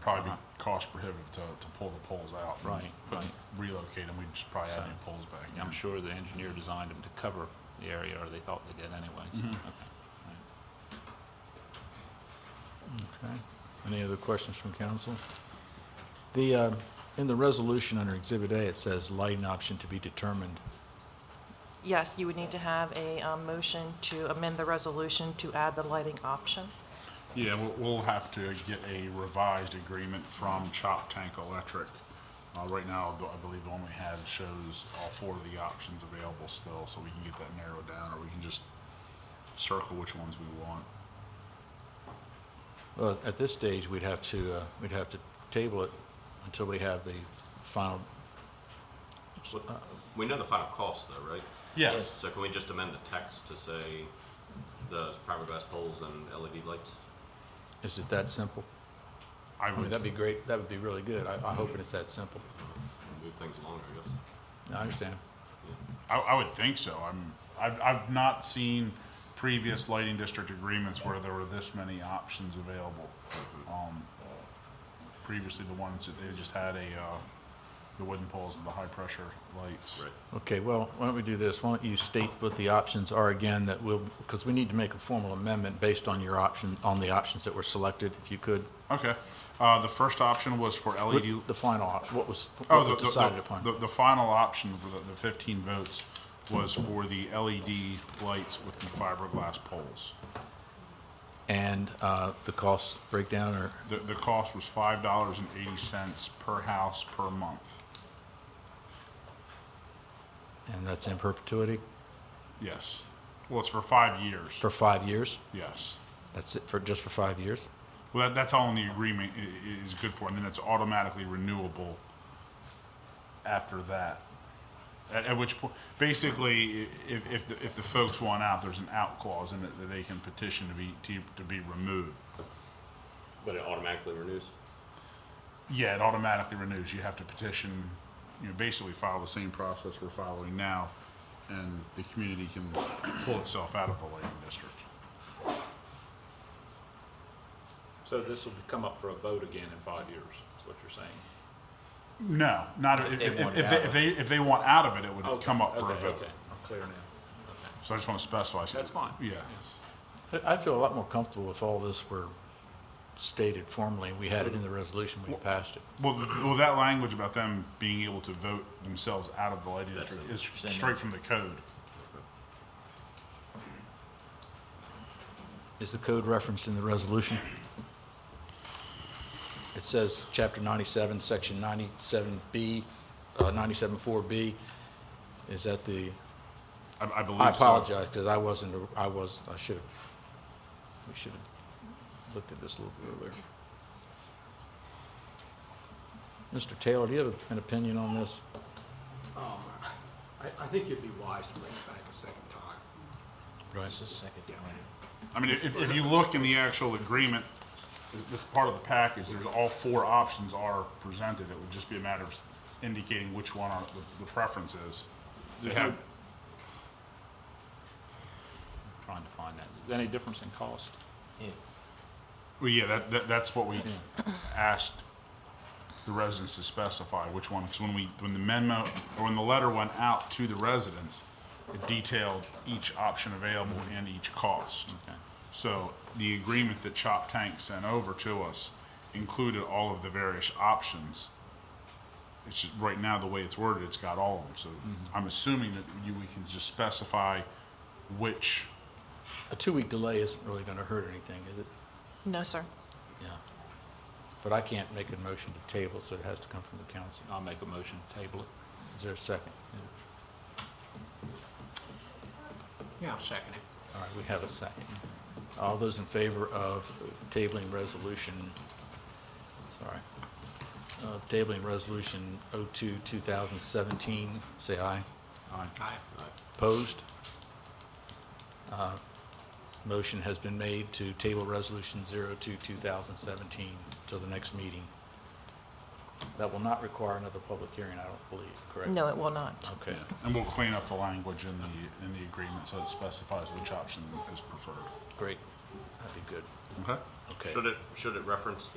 probably be cost prohibitive to, to pull the poles out. and Right, put- right. Relocate them, we'd just probably add So- new poles back. I'm sure the engineer designed them to cover the area, or they thought they did anyways. Mm-hmm. Okay. Okay. Any other questions from council? The, uh, in the resolution under Exhibit A, it says lighting option to be determined. Yes, you would need to have a um, motion to amend the resolution to add the lighting option. Yeah, we'll, we'll have to get a revised agreement from Chop Tank Electric. Uh, right now, the- I believe the one we had shows all four of the options available still, so we can get that narrowed down, or we can just circle which ones we want. Well, at this stage, we'd have to, uh, we'd have to table it until we have the final, uh, We know the final cost though, right? Yes. So can we just amend the text to say the fiberglass poles and LED lights? is it that simple? I I mean, would, that'd be great, that would be really good. I, I hope it's that simple. Move things along, I guess. I understand. I, I would think so. I'm, I've, I've not seen previous lighting district agreements where there were this many options available. Um, previously, the ones that they just had a, uh, the wooden poles and the high-pressure lights. Right. Okay, well, why don't we do this? Why don't you state what the options are again that will, because we need to make a formal amendment based on your option, on the options that were selected, if you could. Okay. Uh, the first option was for LED. The final option, what was, Oh, what the- was the- decided the- upon. The, the final option for the, the fifteen votes was for the LED lights with the fiberglass poles. And uh, the cost breakdown or, The, the cost was five dollars and eighty cents per house per month. and that's in perpetuity Yes. Well, it's for five years. for five years? Yes. That's it for, just for five years? Well, that, that's all in the agreement i- i- is good for, and then it's automatically renewable after that. At, at which point, basically, i- if, if, the- if the folks want out, there's an out clause in it that they can petition to be, to, to be removed. But it automatically renews? Yeah, it automatically renews. You have to petition, you know, basically follow the same process we're following now, and the community can pull itself out of the lighting district. So this will come up for a vote again in five years, is what you're saying? No, not, if, they if, want if out they, of if they, if they want out of it, it would come up for a Okay, vote. Okay, I'm clear now. Okay. So I just want to specify. That's fine. Yes. I- I'd feel a lot more comfortable if all this were stated formally. We had it in the resolution, we passed it. Well, th- well, that language about them being able to vote themselves out of the lighting district is straight from the code. Is the code referenced in the resolution? It says, Chapter 97, Section 97B, uh, 97-4B. Is that the, I, I believe so. I apologize, because I wasn't, I was, I should have, we should have looked at this a little bit earlier. Mr. Taylor, do you have an opinion on this? Um, I, I think you'd be wise to bring it back a second time. Right. I mean, if, if you look in the actual agreement, it's, it's part of the package, there's all four options are presented. It would just be a matter of indicating which one are, the, the preference is. They have, Trying to find that. Is there any difference in cost? well, yeah, that, that, that's what we asked the residents to specify which one, because when we, when the memo, or when the letter went out to the residents, it detailed each option available and each cost. Okay. So the agreement that Chop Tank sent over to us included all of the various options. It's just, right now, the way it's worded, it's got all of them, so I'm assuming that you, we can just specify which, A two-week delay isn't really going to hurt anything, is it? No, sir. Yeah. But I can't make a motion to table, so it has to come from the council. I'll make a motion to table it. Is there a second? Yeah, I'll second it. All right, we have a second. All those in favor of tabling resolution, sorry, of tabling resolution 02, 2017, say aye. Aye. Opposed? Uh, Motion has been made to table resolution 02, 2017 till the next meeting. That will not require another public hearing, I don't believe, correct? No, it will not. Okay. and we'll clean up the language in the, in the agreement so it specifies which option is preferred. Great, that'd be good, Okay? okay. Should it, should it reference